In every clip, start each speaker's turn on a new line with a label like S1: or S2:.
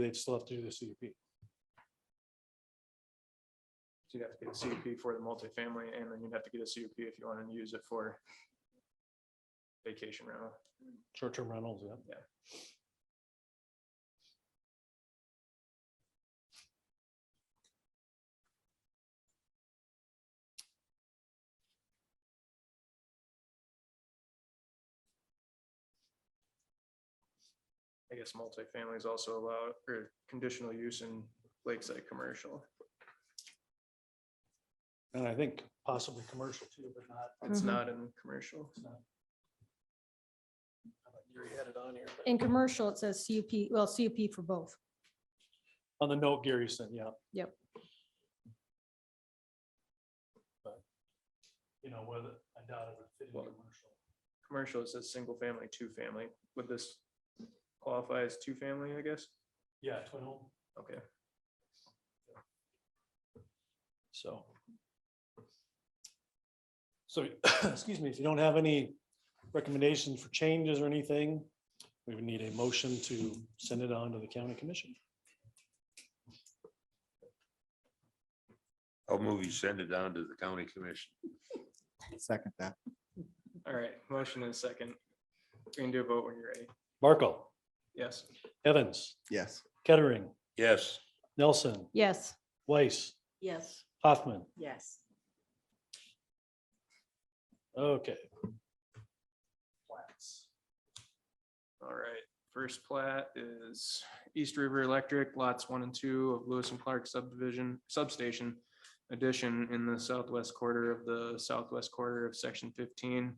S1: they'd still have to do the CUP.
S2: So you'd have to get a CUP for the multifamily and then you'd have to get a CUP if you wanted to use it for vacation rental.
S1: Short-term rentals, yeah.
S2: I guess multifamily is also allowed or conditional use in lakeside commercial.
S1: And I think possibly commercial too, but not.
S2: It's
S3: Mhm.
S2: not in commercial.
S1: You had it on here. but-
S3: In commercial, it says CUP, well, CUP for both.
S1: On the note Gary sent, yeah.
S3: Yep.
S1: But, you know, whether, I doubt it would fit in
S2: Well-
S1: commercial.
S2: Commercial, it says single family, two family. Would this qualify as two family, I guess?
S1: Yeah, twin home,
S2: Okay.
S1: so. So, excuse me, if you don't have any recommendations for changes or anything, we would need a motion to send it on to the county commission.
S4: I'll move you send it down to the county commission.
S5: Second that.
S2: All right, motion and second. We can do a vote when you're ready.
S1: Markle,
S2: Yes.
S1: Evans,
S5: Yes.
S1: Kettering,
S4: Yes,
S1: Nelson,
S3: Yes.
S1: Weiss,
S6: Yes.
S1: Hoffman.
S6: Yes.
S1: Okay.
S2: All right, first plat is East River Electric lots one and two of Lewis and Clark subdivision substation addition in the southwest quarter of the southwest quarter of section fifteen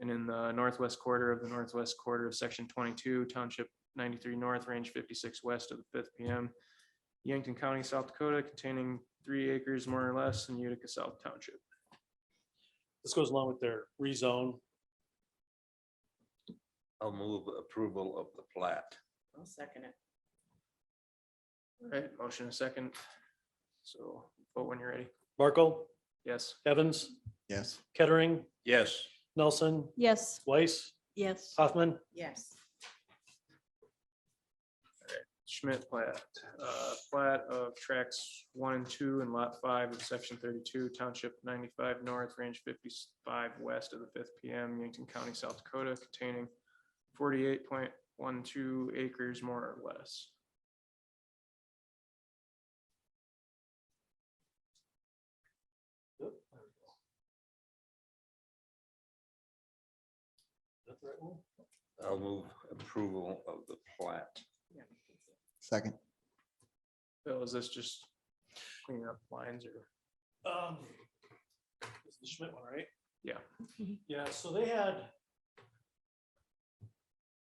S2: and in the northwest quarter of the northwest quarter of section twenty-two township ninety-three north range fifty-six west of the fifth PM Yankton County, South Dakota containing three acres more or less in Utica South Township.
S1: This goes along with their rezone.
S4: I'll move approval of the plat.
S6: I'll second it.
S2: All right, motion and second. So vote when you're ready.
S1: Markle,
S2: Yes.
S1: Evans,
S5: Yes.
S1: Kettering,
S4: Yes,
S1: Nelson,
S3: Yes.
S1: Weiss,
S6: Yes.
S1: Hoffman.
S6: Yes.
S2: Schmidt plat, uh, plat of tracks one and two and lot five of section thirty-two, township ninety-five north, range fifty-five west of the fifth PM, Yankton County, South Dakota, containing forty-eight point one two acres more or less.
S1: Yep, there we go. That's the right one?
S4: I'll move approval of the plat.
S5: Second.
S2: Bill, is this just cleaning up lines or?
S1: Um, it's the Schmidt one, right?
S2: Yeah.
S3: Mhm.
S1: Yeah, so they had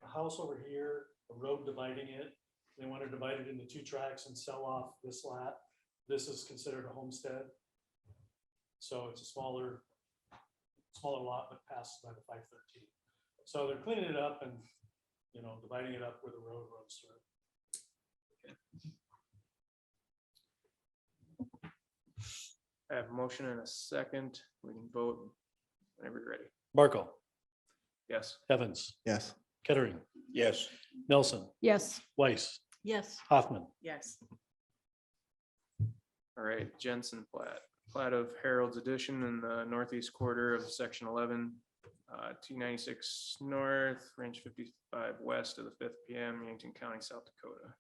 S1: a house over here, a road dividing it. They wanted to divide it into two tracks and sell off this lot. This is considered a homestead. So it's a smaller, smaller lot, but passed by the five thirteen. So they're cleaning it up and, you know, dividing it up where the road runs through.
S2: I have a motion and a second. We can vote whenever you're ready.
S1: Barkle,
S2: Yes.
S1: Evans,
S5: Yes.
S1: Kettering,
S4: Yes,
S1: Nelson,
S3: Yes.
S1: Weiss,
S6: Yes.
S1: Hoffman.
S6: Yes.
S2: All right, Jensen plat, plat of Harold's addition in the northeast quarter of section eleven. Uh, two ninety-six north, range fifty-five west of the fifth PM, Yankton County, South Dakota.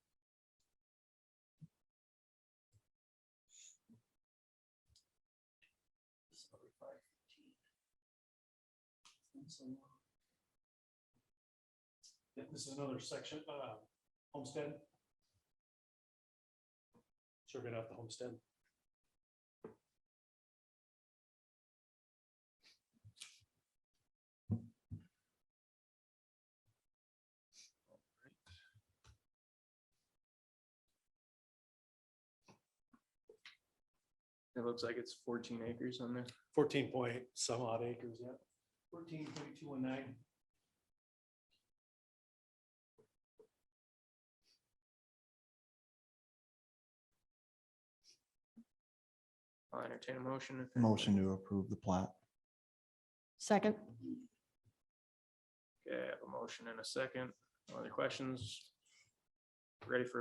S1: Yeah, uh, This is another section, uh, homestead. Surveyed out the homestead.
S2: It looks like it's fourteen acres on there.
S1: Fourteen point some odd acres, yeah. Fourteen point two one nine.
S2: I'll entertain a motion. if anybody-
S5: Motion to approve the plat.
S3: Second.
S2: Okay, I have a motion and a second. Other questions? Ready for